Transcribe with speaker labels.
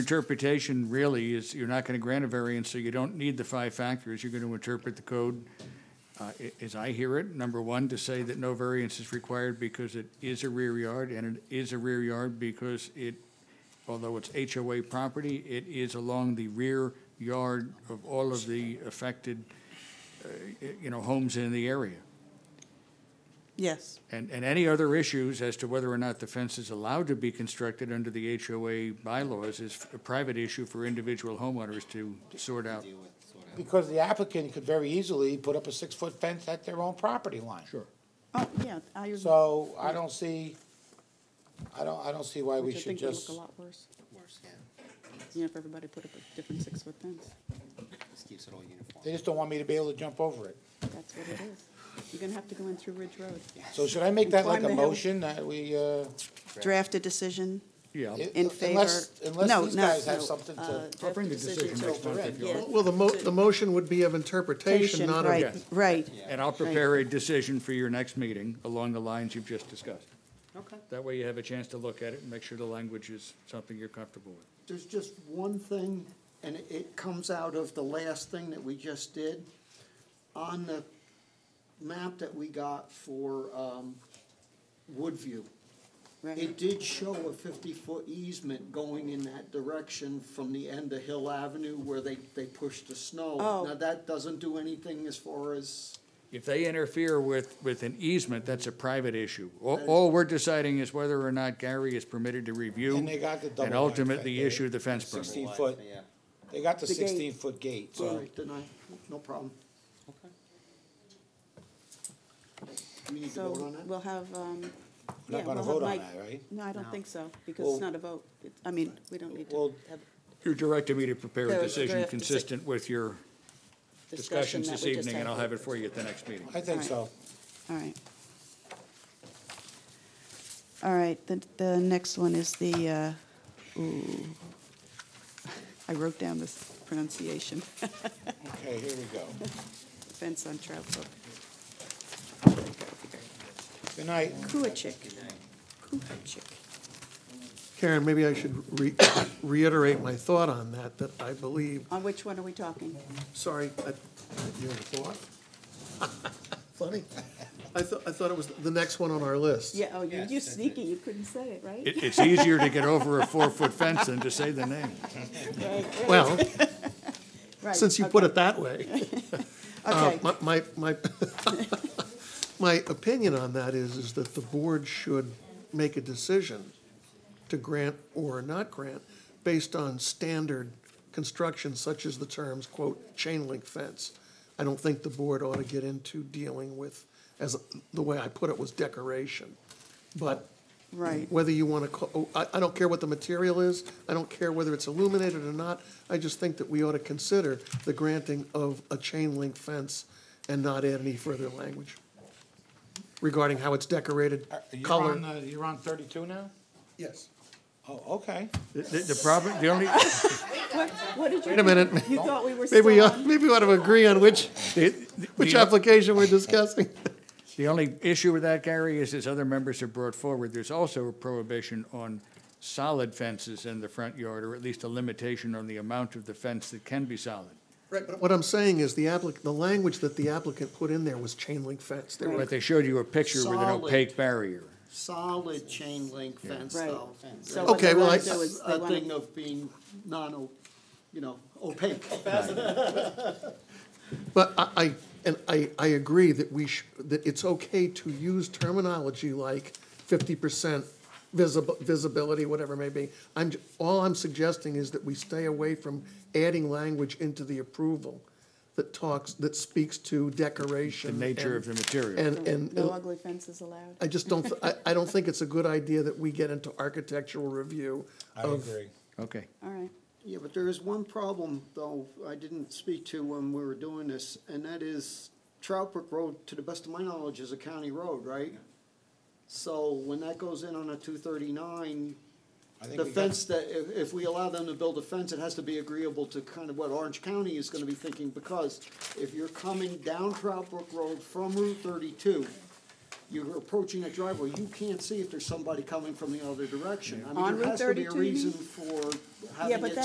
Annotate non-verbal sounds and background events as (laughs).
Speaker 1: Interpretation really is, you're not going to grant a variance, so you don't need the five factors. You're going to interpret the code, uh, i- as I hear it, number one, to say that no variance is required because it is a rear yard, and it is a rear yard because it, although it's HOA property, it is along the rear yard of all of the affected, uh, y- you know, homes in the area.
Speaker 2: Yes,
Speaker 1: And, and any other issues as to whether or not the fence is allowed to be constructed under the HOA bylaws is a private issue for individual homeowners to sort out.
Speaker 3: Because the applicant could very easily put up a six-foot fence at their own property line. Sure.
Speaker 2: oh, yeah, I agree.
Speaker 3: So I don't see, I don't, I don't see why we
Speaker 2: Which I
Speaker 3: should
Speaker 2: think would look
Speaker 3: just,
Speaker 2: a lot worse. You know, if everybody put up a different six-foot fence,
Speaker 4: Just keeps it all uniform.
Speaker 3: they just don't want me to be able to jump over it.
Speaker 2: that's what it is. You're gonna have to go in through Ridge Road.
Speaker 3: So should I make that like
Speaker 2: Climb
Speaker 3: a
Speaker 2: the hill.
Speaker 3: motion that we, uh?
Speaker 2: Draft a decision
Speaker 1: Yeah,
Speaker 3: it-
Speaker 2: in favor.
Speaker 3: unless- Unless these guys have something
Speaker 2: uh,
Speaker 3: to,
Speaker 2: draft
Speaker 1: bring the
Speaker 2: a
Speaker 1: decision
Speaker 2: to-
Speaker 1: next month if you
Speaker 2: yeah,
Speaker 5: Well, the mo, the motion would be of interpretation,
Speaker 2: Patient,
Speaker 5: not of.
Speaker 2: right,
Speaker 1: Yes.
Speaker 2: right.
Speaker 1: and I'll prepare a decision for your next meeting along the lines you've just discussed.
Speaker 4: Okay.
Speaker 1: That way you have a chance to look at it and make sure the language is something you're comfortable with.
Speaker 6: There's just one thing, and it- it comes out of the last thing that we just did. On the map that we got for um, Woodview,
Speaker 2: Right.
Speaker 6: it did show a fifty-foot easement going in that direction from the end of Hill Avenue where they, they pushed the snow.
Speaker 2: Oh.
Speaker 6: Now, that doesn't do anything as far as,
Speaker 1: If they interfere with, with an easement, that's a private issue. All, all we're deciding is whether or not Gary is permitted to review.
Speaker 3: And they got the double
Speaker 1: And
Speaker 3: wide
Speaker 1: ultimately
Speaker 3: fence,
Speaker 1: issue the fence permit.
Speaker 3: sixteen foot,
Speaker 4: Yeah.
Speaker 3: they got the
Speaker 2: The gate.
Speaker 3: sixteen-foot gate,
Speaker 6: all
Speaker 3: so.
Speaker 6: right, then I, no problem. We need to
Speaker 2: So
Speaker 6: vote on that?
Speaker 2: we'll have, um,
Speaker 3: We're
Speaker 2: yeah,
Speaker 3: not gonna
Speaker 2: we'll
Speaker 3: vote
Speaker 2: have
Speaker 3: on
Speaker 2: Mike.
Speaker 3: that, right?
Speaker 2: No, I don't think so, because
Speaker 3: Well-
Speaker 2: it's not a vote. It's- I mean, we don't need to
Speaker 3: Well,
Speaker 2: have
Speaker 1: You're directing me to prepare a
Speaker 2: Prepare a
Speaker 1: decision
Speaker 2: draft deci-
Speaker 1: consistent with your
Speaker 2: discussion
Speaker 1: discussions
Speaker 2: that
Speaker 1: this
Speaker 2: we just
Speaker 1: evening, and I'll
Speaker 2: had.
Speaker 1: have it for you at the next meeting.
Speaker 3: I think so.
Speaker 2: All right. All right, the, the next one is the, uh, ooh, (laughs) I wrote down this pronunciation, (laughs)
Speaker 3: Okay, here we go.
Speaker 2: fence on Trout Brook.
Speaker 3: Good night.
Speaker 2: Kuachik. Kuachik.
Speaker 5: Karen, maybe I should re- (coughs) reiterate my thought on that, that I believe,
Speaker 2: On which one are we talking?
Speaker 5: sorry, I- you have a thought? (laughs) Funny. I thought, I thought it was the next one on our list.
Speaker 2: Yeah, oh, you,
Speaker 4: Yes,
Speaker 2: you
Speaker 4: that's it.
Speaker 2: sneaky, you couldn't say it, right?
Speaker 1: It, it's easier to get over a four-foot fence than to say the name.
Speaker 5: Well,
Speaker 2: (laughs) Right,
Speaker 5: since you put
Speaker 2: okay,
Speaker 5: it that way. Uh,
Speaker 2: Okay,
Speaker 5: My, my, my, (laughs) my opinion on that is, is that the board should make a decision to grant or not grant based on standard construction such as the terms, quote, chain link fence. I don't think the board ought to get into dealing with, as the way I put it was decoration. But
Speaker 2: right,
Speaker 5: whether you want to, call, I, I don't care what the material is, I don't care whether it's illuminated or not, I just think that we ought to consider the granting of a chain link fence and not add any further language regarding how it's decorated,
Speaker 3: You're on,
Speaker 5: color.
Speaker 3: uh, you're on thirty-two now?
Speaker 5: Yes.
Speaker 3: Oh, okay.
Speaker 1: The, the- the problem, the only,
Speaker 2: What, what did you?
Speaker 5: Wait a minute.
Speaker 2: You thought we were
Speaker 5: Maybe, uh, we
Speaker 2: still
Speaker 5: ought-
Speaker 2: on,
Speaker 5: maybe we ought to agree on which, which
Speaker 1: the-
Speaker 5: application we're discussing. (laughs)
Speaker 1: the only issue with that, Gary, is as other members have brought forward, there's also a prohibition on solid fences in the front yard, or at least a limitation on the amount of the fence that can be solid.
Speaker 5: Right, but what I'm saying is the applic, the language that the applicant put in there was chain link fence. There were
Speaker 1: But they showed you a picture with an
Speaker 6: Solid.
Speaker 1: opaque barrier.
Speaker 6: solid chain link fence
Speaker 2: Right.
Speaker 6: though.
Speaker 2: So
Speaker 5: what Okay, they well, wanna I-
Speaker 6: That's
Speaker 5: do
Speaker 2: is they
Speaker 6: A
Speaker 2: wanna-
Speaker 6: thing of being non, you know, opaque.
Speaker 5: But I, I, and I, I agree that we sh, that it's okay to use terminology like fifty percent visible, visibility, whatever it may be. I'm, j- all I'm suggesting is that we stay away from adding language into the approval that talks, that speaks to decoration.
Speaker 1: The nature of
Speaker 5: and-
Speaker 1: the material.
Speaker 5: And, and,
Speaker 2: Mm-hmm.
Speaker 5: uh,
Speaker 2: no ugly fences allowed?
Speaker 5: I just don't, I, I don't think it's a good idea that we get into architectural review of
Speaker 1: Okay.
Speaker 2: All right,
Speaker 6: Yeah, but there is one problem though I didn't speak to when we were doing this, and that is Trout Brook Road, to the best of my knowledge, is a county road, right? So when that goes in on a two thirty-nine,
Speaker 3: I think
Speaker 6: the
Speaker 3: we got-
Speaker 6: fence that, if, if we allow them to build a fence, it has to be agreeable to kind of what Orange County is gonna be thinking, because if you're coming down Trout Brook Road from Route thirty-two, you're approaching a driveway, you can't see if there's somebody coming from the other direction. I
Speaker 2: On
Speaker 6: mean, there
Speaker 2: Route
Speaker 6: has to be
Speaker 2: 32,
Speaker 6: a
Speaker 2: you
Speaker 6: reason
Speaker 2: mean?
Speaker 6: for
Speaker 7: having
Speaker 6: Yeah,
Speaker 7: it
Speaker 6: but that-